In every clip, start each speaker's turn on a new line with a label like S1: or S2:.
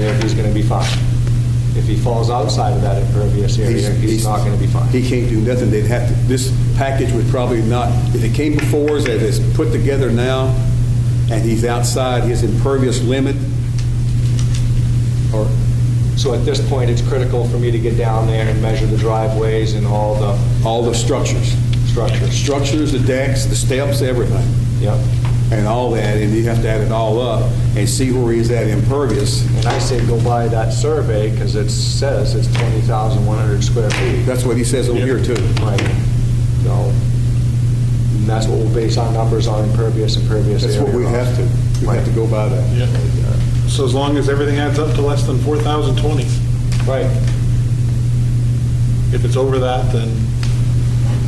S1: going to be fined. If he falls outside of that impervious area, he's not going to be fined.
S2: He can't do nothing. They'd have to, this package would probably not, if it came before us as it's put together now, and he's outside his impervious limit, or,
S1: So at this point, it's critical for me to get down there and measure the driveways and all the
S2: all the structures.
S1: structures.
S2: Structures, the decks, the steps, everything,
S1: Yep.
S2: and all that, and you have to add it all up and see where he's at impervious.
S1: And I say go by that survey because it says it's 20,100 square feet.
S2: That's what he says over here, too.
S1: Right. So, and that's what we'll base our numbers on, impervious, impervious
S2: That's
S1: area.
S2: what we have to, we have to go by that.
S3: Yeah. So as long as everything adds up to less than 4,020,
S1: Right.
S3: if it's over that, then,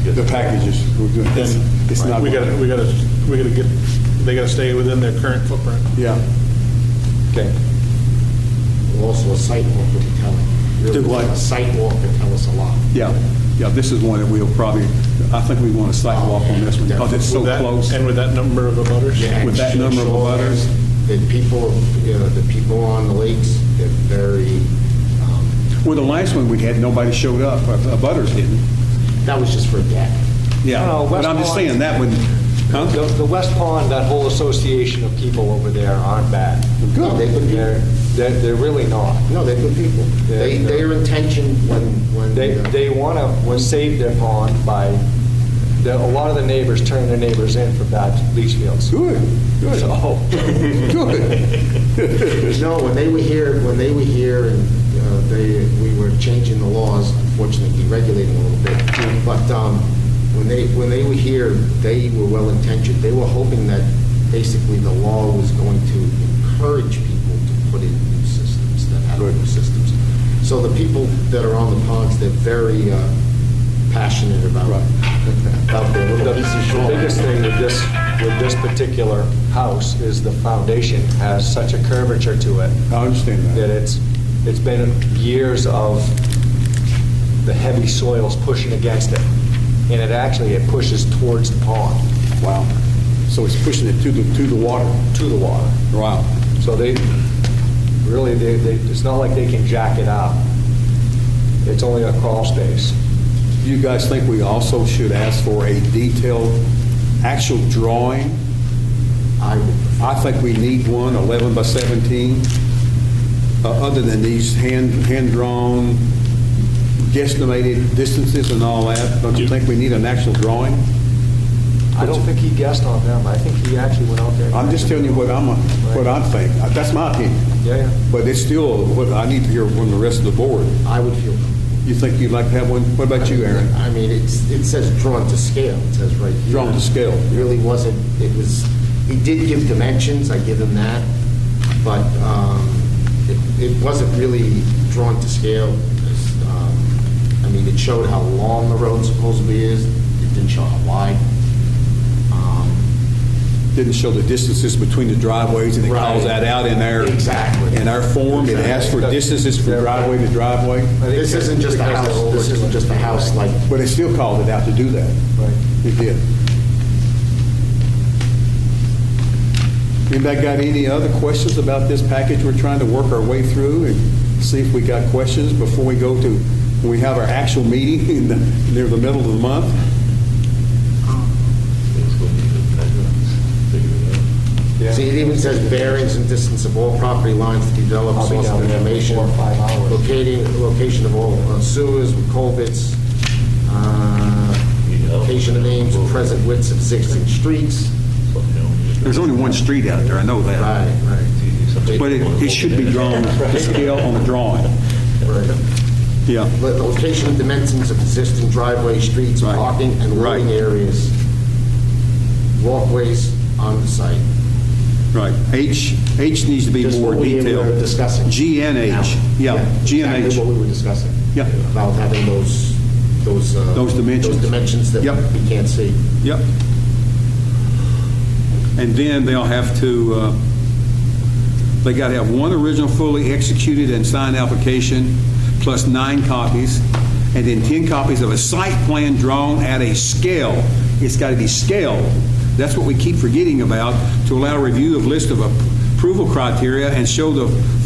S2: The packages, we're doing, it's it's
S3: then
S2: not.
S3: we gotta, we gotta, we gotta get, they gotta stay within their current footprint.
S2: Yeah.
S1: Okay.
S4: Also, a site walk would tell.
S2: Do what?
S4: A site walk would tell us a lot.
S2: Yeah, yeah, this is one that we'll probably, I think we want a sidewalk on this one, because it's so
S3: With that-
S2: close.
S3: And with that number of abutters?
S4: Yeah.
S2: With that number of abutters.
S4: The people, you know, the people on the lakes, they're very, um,
S2: With the last one we had, nobody showed up, uh, Butters didn't.
S4: that was just for a deck.
S2: Yeah,
S1: No, no,
S2: but I'm just
S1: West Lawn-
S2: saying, that one,
S1: The
S2: huh?
S1: the West Pond, that whole association of people over there aren't bad.
S4: Good.
S1: They- They're, they're they're really not.
S4: No, they're good people. They,
S1: Yeah.
S4: their intention when, when.
S1: They,
S4: uh,
S1: they want to save their pond by, the- a lot of the neighbors turn their neighbors in for bad leach fields.
S2: Good, good, oh, good.
S4: No, when they were here, when they were here and uh, they, we were changing the laws, unfortunately deregulating a little bit, but um, when they, when they were here, they were well-intentioned. They were hoping that basically the law was going to encourage people to put in new systems, that had older systems. So the people that are on the ponds, they're very uh, passionate about, about their
S1: The
S4: little piece of
S1: the
S4: shore.
S1: biggest thing with this, with this particular house is the foundation has such a curvature to it
S2: I understand
S1: that
S2: that.
S1: it's, it's been years of the heavy soils pushing against it. And it actually, it pushes towards the pond,
S2: Wow. So it's pushing it to the, to the water.
S1: to the water.
S2: Wow.
S1: So they, really, they, they, it's not like they can jack it up. It's only a crawl space.
S2: Do you guys think we also should ask for a detailed, actual drawing?
S4: I would
S2: I think we need one, 11 by 17, uh, other than these hand, hand-drawn, guesstimated distances and all that. Don't you think we need an actual drawing?
S1: I don't think he guessed on them. I think he actually went out there.
S2: I'm just telling you what I'm, what I think. That's my opinion.
S1: Yeah, yeah.
S2: But it's still, what I need to hear from the rest of the board.
S4: I would feel
S2: You think you'd like to have one? What about you, Aaron?
S4: I mean, it's, it says drawn to scale, it says right here.
S2: Drawn to scale.
S4: It really wasn't, it was, he did give dimensions, I give him that, but um, it it wasn't really drawn to scale. It's, um, I mean, it showed how long the road supposedly is, it didn't show how wide. Um,
S2: Didn't show the distances between the driveways, and it calls
S4: Right.
S2: that out in there.
S4: Exactly.
S2: In our form, it asks for distances from driveway to driveway,
S1: I think
S4: This isn't just a
S1: because they're
S4: house, this isn't just a house like,
S2: but it still called it out to do that.
S1: Right.
S2: It did. Anybody got any other questions about this package we're trying to work our way through and see if we got questions before we go to, when we have our actual meeting in the, near the middle of the month?
S1: Yeah.
S4: see, it even says bearings and distance of all property lines to be
S1: I'll
S4: developed,
S1: be
S4: source
S1: down
S4: of
S1: there in
S4: information.
S1: four or five hours.
S4: locating, location of all uh, sewers, culverts, uh, location of names, present widths of existing streets.
S2: There's only one street out there, I know that.
S4: right.
S2: But it, it should be drawn, the scale on the drawing. Yeah.
S4: Lo- Location and dimensions of existing driveway, streets,
S2: Right.
S4: parking, and loading
S2: Right.
S4: areas, walkways on the site.
S2: Right. H, H needs to be
S4: Just
S2: more
S4: what we
S2: detailed.
S4: were discussing.
S2: G and H, yeah, G and H.
S4: Exactly what we were discussing.
S2: Yeah.
S4: About having those, those. uh,
S2: Those dimensions.
S4: Those dimensions that
S2: Yep.
S4: we can't see.
S2: Yep. And then they'll have to, uh, they got to have one original fully executed and signed application, plus nine copies, and then 10 copies of a site plan drawn at a scale. It's got to be scaled. That's what we keep forgetting about, to allow review of list of approval criteria and show the